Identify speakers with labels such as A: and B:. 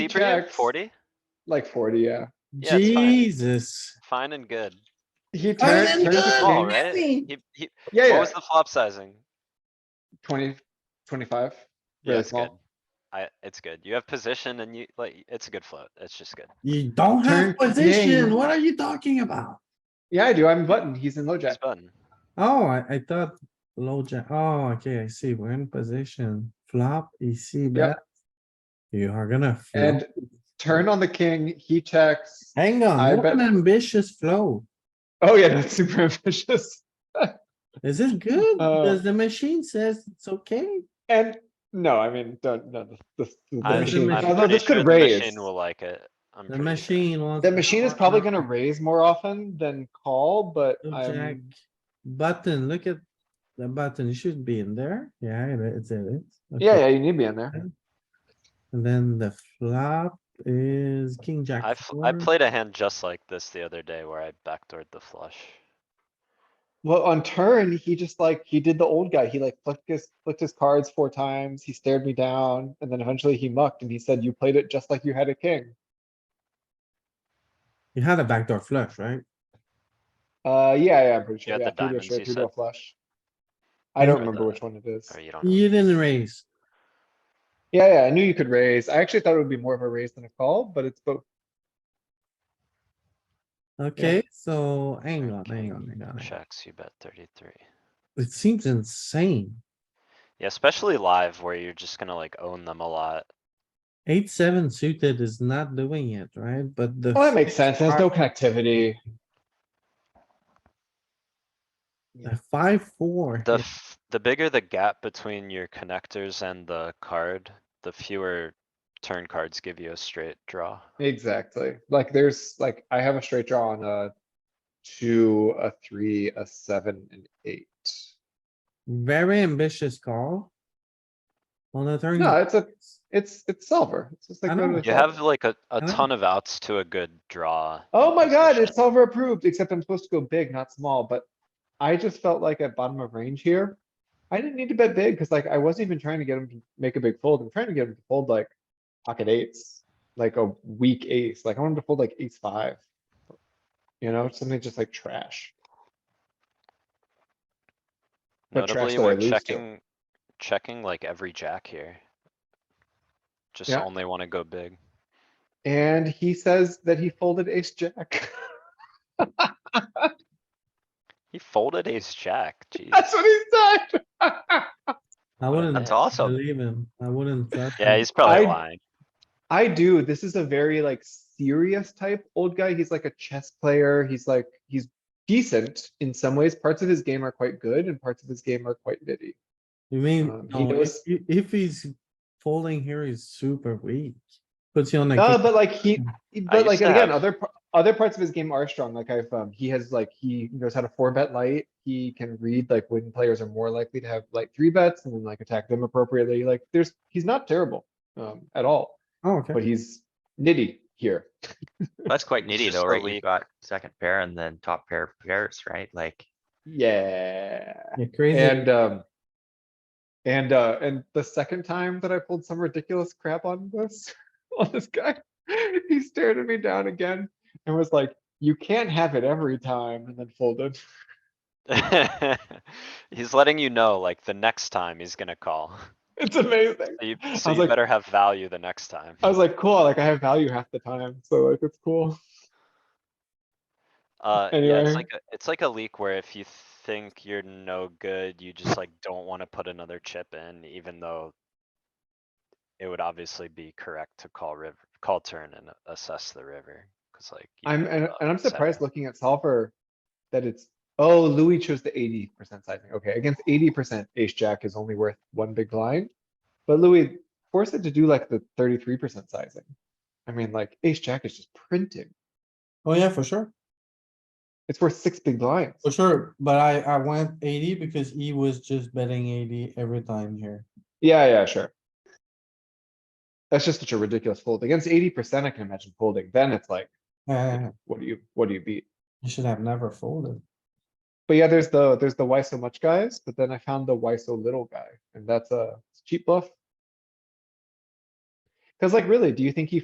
A: Deeper here,
B: checks.
A: forty,
B: like forty, yeah.
A: Yeah, it's fine.
C: Jesus.
A: fine and good.
B: He
D: Fine
B: turns,
D: and
B: turns the
D: good.
A: Small,
B: king.
A: right?
D: nothing.
A: He, he,
B: Yeah,
A: Oh, what
B: yeah,
A: was the flop sizing?
B: twenty, twenty-five.
A: Yeah,
B: Really
A: it's good.
B: small.
A: I, it's good. You have position and you, like, it's a good float. It's just good.
C: You don't
B: Turn
C: have
B: game.
C: position. What are you talking about?
B: Yeah, I do. I'm button. He's in
A: It's
B: LoJack.
A: fun.
C: Oh, I, I thought low jack. Oh, okay, I see. We're in position. Flop, EC bet. You are gonna. flop.
B: And turn on the king, he checks.
C: Hang on,
B: I
C: what
B: bet-
C: an ambitious flow.
B: Oh yeah, that's super ambitious.
C: Is it good?
B: Uh,
C: Because the machine says it's okay.
B: And, no, I mean, don't, no, the, the- the.
A: I'm,
B: machine-
C: machine-
A: I'm
B: Although
A: pretty
B: this
A: sure
B: could
A: the
B: raise.
A: machine will like it. I'm
C: The
A: pretty sure.
C: machine wants.
B: The
C: to
B: machine is
C: call
B: probably
C: now.
B: gonna raise more often than call, but
C: Low Jack
B: I'm,
C: button, look at the button. It should be in there. Yeah, it is, it is.
B: yeah,
C: Okay.
B: yeah, you need me in there.
C: And then the flop is king jack.
A: I, f- I
C: four.
A: played a hand just like this the other day where I backdoored the flush.
B: Well, on turn, he just like, he did the old guy. He like flicked his, flicked his cards four times. He stared me down and then eventually he mucked and he said, you played it just like you had a king.
C: You had a backdoor flush, right?
B: Uh, yeah, yeah, I'm pretty
A: You had
B: sure.
A: the
B: Yeah, three to a
A: diamonds,
B: straight,
A: you
B: three to a
A: said.
B: flush. I don't
A: Or
B: remember
A: the-
B: which one it is.
A: Or you don't. know.
C: You didn't raise.
B: Yeah, yeah, I knew you could raise. I actually thought it would be more of a raise than a call, but it's both.
C: Okay, so hang on, hang
A: King
C: on, hang on. hang on.
A: Checks, you bet thirty-three.
C: It seems insane.
A: Yeah, especially live where you're just gonna like own them a lot.
C: Eight, seven suited is not doing it, right? But the.
B: Well, that makes sense. There's no connectivity.
C: The five, four.
A: The, f- the bigger the gap between your connectors and the card, the fewer turn cards give you a straight draw.
B: Exactly. Like there's, like, I have a straight draw on a two, a three, a seven, and eight.
C: Very ambitious call. On the turn.
B: No, it's a, it's, it's solver. It's just like.
C: Hmm. I
B: going
C: know.
B: with
A: You
B: solver.
A: have like a, a
C: Huh?
A: ton of outs to a good draw.
B: Oh
A: in
B: my god,
A: position.
B: it's solver approved, except I'm supposed to go big, not small, but I just felt like at bottom of range here. I didn't need to bet big, cuz like I wasn't even trying to get him to make a big fold. I'm trying to get him to fold like pocket eights, like a weak ace, like I wanted to fold like ace five. You know, something just like trash. but trash
A: Notably,
B: that I
A: we're
B: lose to.
A: checking, checking like every jack here. Just
B: Yeah.
A: only wanna go big.
B: And he says that he folded ace jack.
A: He folded ace jack, jeez.
B: That's what he said.
C: I wouldn't.
A: That's awesome.
C: Believe him. I wouldn't. trust
A: Yeah,
C: him.
A: he's probably
B: I-
A: lying.
B: I do. This is a very like serious type old guy. He's like a chess player. He's like, he's decent in some ways. Parts of his game are quite good and parts of his game are quite nitty.
C: You mean,
B: Um, he
C: no, if,
B: knows-
C: you- if he's folding here, he's super weak. Puts you on the.
B: No,
C: king-
B: but like he, he- but
A: used
B: like
A: to
B: again,
A: have-
B: other, par- other parts of his game are strong. Like I've, um, he has like, he knows how to four bet light. He can read like when players are more likely to have like three bets and then like attack them appropriately. Like there's, he's not terrible, um, at all,
C: Oh, okay.
B: but he's nitty here.
E: That's quite
A: It's
E: nitty
A: just
E: though,
A: the
E: right?
A: lead.
E: You've got second pair and then top pair pairs, right? Like,
B: Yeah.
C: You're crazy.
B: And, um. And, uh, and the second time that I pulled some ridiculous crap on this, on this guy, he stared at me down again and was like, you can't have it every time and then folded.
A: He's letting you know, like, the next time he's gonna call.
B: It's amazing.
A: So you,
B: I
A: so
B: was
A: you
B: like-
A: better have value the next time.
B: I was like, cool, like I have value half the time, so like it's cool.
A: Uh, yeah,
B: anyway.
A: it's like, a it's like a leak where if you think you're no good, you just like don't wanna put another chip in, even though it would obviously be correct to call river, call turn and assess the river, cuz like. you
B: I'm,
A: know,
B: and,
A: uh,
B: and I'm
A: seven.
B: surprised looking at solver that it's, oh, Louis chose the eighty percent sizing. Okay, against eighty percent, ace jack is only worth one big blind. But Louis, force it to do like the thirty-three percent sizing. I mean, like ace jack is just printing.
C: Oh, yeah, for sure.
B: It's worth six big blinds.
C: For sure, but I, I went eighty because he was just betting eighty every time here.
B: Yeah, yeah, sure. That's just such a ridiculous fold. Against eighty percent, I can imagine folding. Then it's like,
C: Uh,
B: what do you, what do you beat?
C: you should have never folded.
B: But yeah, there's the, there's the why so much guys, but then I found the why so little guy, and that's a it's cheap bluff. Cause like really, do you think he